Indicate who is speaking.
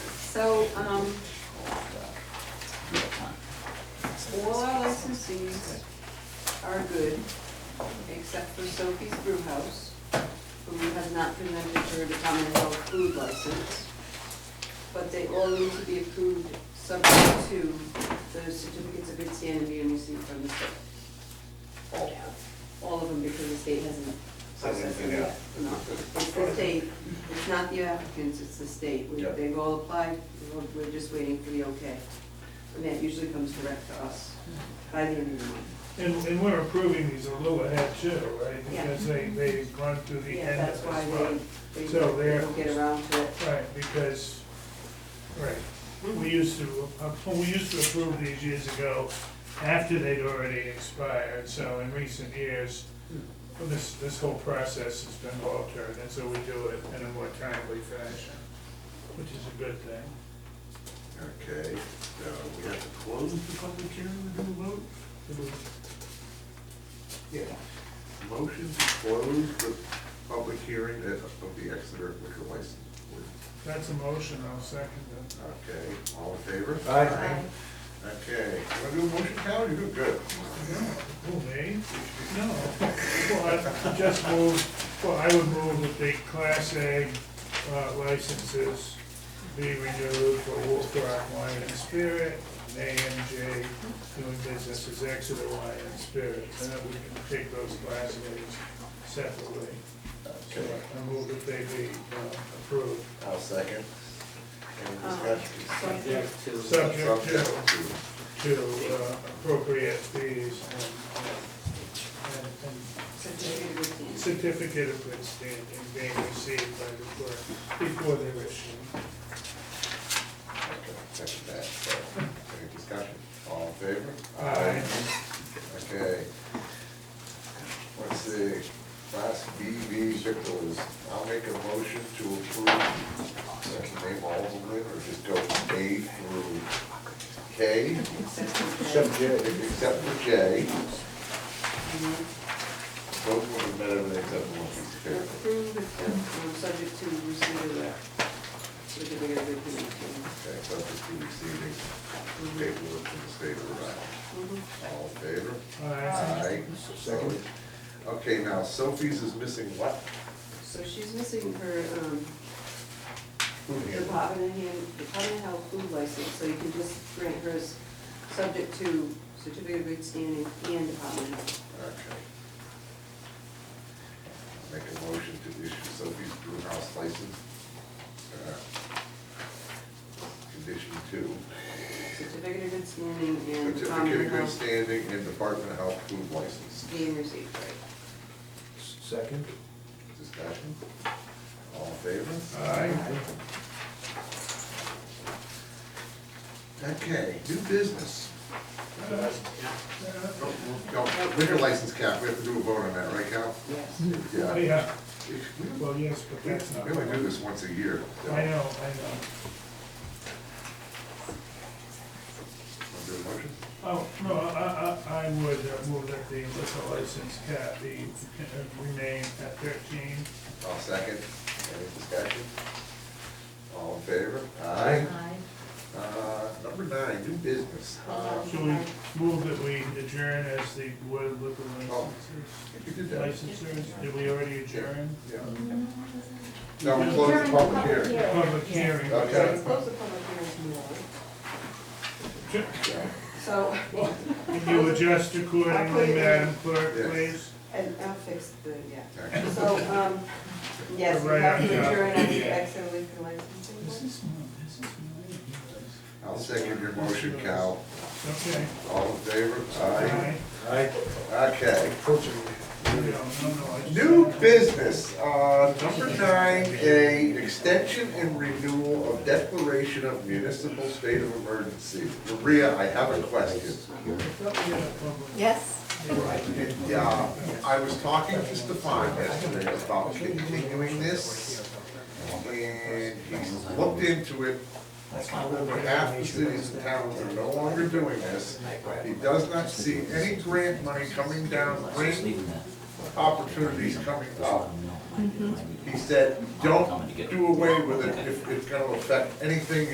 Speaker 1: So, um, all our licensees are good, except for Sophie's Brew House, who has not presented her the Commonwealth food license. But they all need to be approved subject to the certificates of good standing being received from the state. All, all of them, because the state hasn't processed them yet. No, it's the state, it's not the applicants, it's the state. We-
Speaker 2: Yeah.
Speaker 1: They've all applied, we're- we're just waiting for the okay. And that usually comes direct to us by the end of the month.
Speaker 3: And, and we're approving these a little ahead too, right?
Speaker 1: Yeah.
Speaker 3: Because they, they've gone through the
Speaker 1: Yeah,
Speaker 3: end
Speaker 1: that's
Speaker 3: of
Speaker 1: why
Speaker 3: this one.
Speaker 1: they, they
Speaker 3: So they're-
Speaker 1: don't get around to it.
Speaker 3: Right, because, right, we- we used to, uh, we used to approve these years ago after they'd already expired, so in recent years, this, this whole process has been altered, and so we do it in a more timely fashion, which is a good thing.
Speaker 2: Okay, so we have to close the public hearing and do a vote? Yeah. Motion to close the public hearing of of the Exeter liquor license. board.
Speaker 3: That's a motion, I'll second it.
Speaker 2: Okay, all in favor?
Speaker 4: Aye.
Speaker 2: Okay, want to do a motion, Cal, you're doing good.
Speaker 3: Who, me? No. Well, I just move, well, I would move that the Class A uh, licenses be renewed for Wolf Rock Wine and Spirit, and AMJ doing business as Exeter Wine and Spirit, and that we can take those Class As separately. So
Speaker 2: Okay,
Speaker 3: I move that they be uh, approved,
Speaker 2: I'll second. Any
Speaker 1: Um,
Speaker 2: discussion?
Speaker 1: so-
Speaker 3: subject to
Speaker 2: Subject to-
Speaker 3: to uh, appropriate fees and- and, and
Speaker 1: Certificate of good standing.
Speaker 3: certificate of good standing being received by the clerk before they're issued.
Speaker 2: Okay, second that, so, any discussion? All in favor?
Speaker 3: Aye.
Speaker 2: Okay. Let's see, class BV victuals, I'll make a motion to approve, I can name all of them, or just go A through K,
Speaker 1: Except for
Speaker 4: J.
Speaker 2: except for J.
Speaker 1: that, um,
Speaker 2: Both of them better than except for one. Okay.
Speaker 1: Approved, um, subject to receipt of that, with the bigger good communication.
Speaker 2: Okay, so just be receiving paperwork from the state of Rhode Island.
Speaker 1: Mm-hmm.
Speaker 2: All in favor?
Speaker 3: Aye.
Speaker 2: Aye.
Speaker 4: Second.
Speaker 2: Okay, now Sophie's is missing what?
Speaker 1: So she's missing her, um, Department of Hand, Department of Health food license, so you can just grant hers, subject to certificate of good standing and Department of Health.
Speaker 2: Okay. Make a motion to issue Sophie's Brewhouse license. uh, Condition two,
Speaker 1: Certificate of good standing and
Speaker 2: certificate
Speaker 1: Department of Health
Speaker 2: of good standing and Department of Health food license.
Speaker 1: being received, right?
Speaker 4: Second.
Speaker 2: Discussion? All in favor? Okay, new business.
Speaker 3: Uh,
Speaker 2: No, no, Liquor license cap, we have to do a vote on that, right, Cal?
Speaker 1: Yes.
Speaker 3: Aye.
Speaker 2: Yeah.
Speaker 3: Yeah,
Speaker 2: We
Speaker 3: well, yes, but
Speaker 2: we
Speaker 3: that's not.
Speaker 2: only do this once a year. so-
Speaker 3: I know, I know.
Speaker 2: Want to do a motion?
Speaker 3: Oh, no, I, I, I would uh, move that the liquor license cap be uh, remain at thirteen.
Speaker 2: I'll second. Any discussion? All in favor?
Speaker 5: Aye.
Speaker 2: Uh, number nine, new business. Uh,
Speaker 3: So we move that we adjourn as the Board of Liquor Licenses.
Speaker 2: You Oh. did that.
Speaker 3: Licensers, did we already adjourn?
Speaker 2: Yeah. No, we closed the public hearing.
Speaker 3: Public hearing.
Speaker 2: Okay.
Speaker 1: Close the public hearing tomorrow.
Speaker 2: Yeah.
Speaker 1: So,
Speaker 3: Can you adjust accordingly, Madam Clerk,
Speaker 2: Yes.
Speaker 3: please?
Speaker 1: and I'll fix the, yeah.
Speaker 2: Actually,
Speaker 1: So, um, yes, we
Speaker 3: Right
Speaker 1: have to
Speaker 3: on top.
Speaker 1: adjourn on the exit liquor licensing board.
Speaker 3: is, this is.
Speaker 2: I'll second your motion, Cal.
Speaker 3: Okay.
Speaker 2: All in favor?
Speaker 3: Aye.
Speaker 4: Aye.
Speaker 2: Okay.
Speaker 3: No, no, no, I just-
Speaker 2: New business, uh, number nine, a extension and renewal of declaration of municipal state of emergency. Maria, I have a question.
Speaker 3: Oh,
Speaker 5: Yes.
Speaker 2: And, uh, I was talking to Stefan yesterday about continuing this, and he's looked into it. Over half the cities and towns are no longer doing this. He does not see any grant money coming down, grant opportunities coming up. He said, don't do away with it if it's gonna affect anything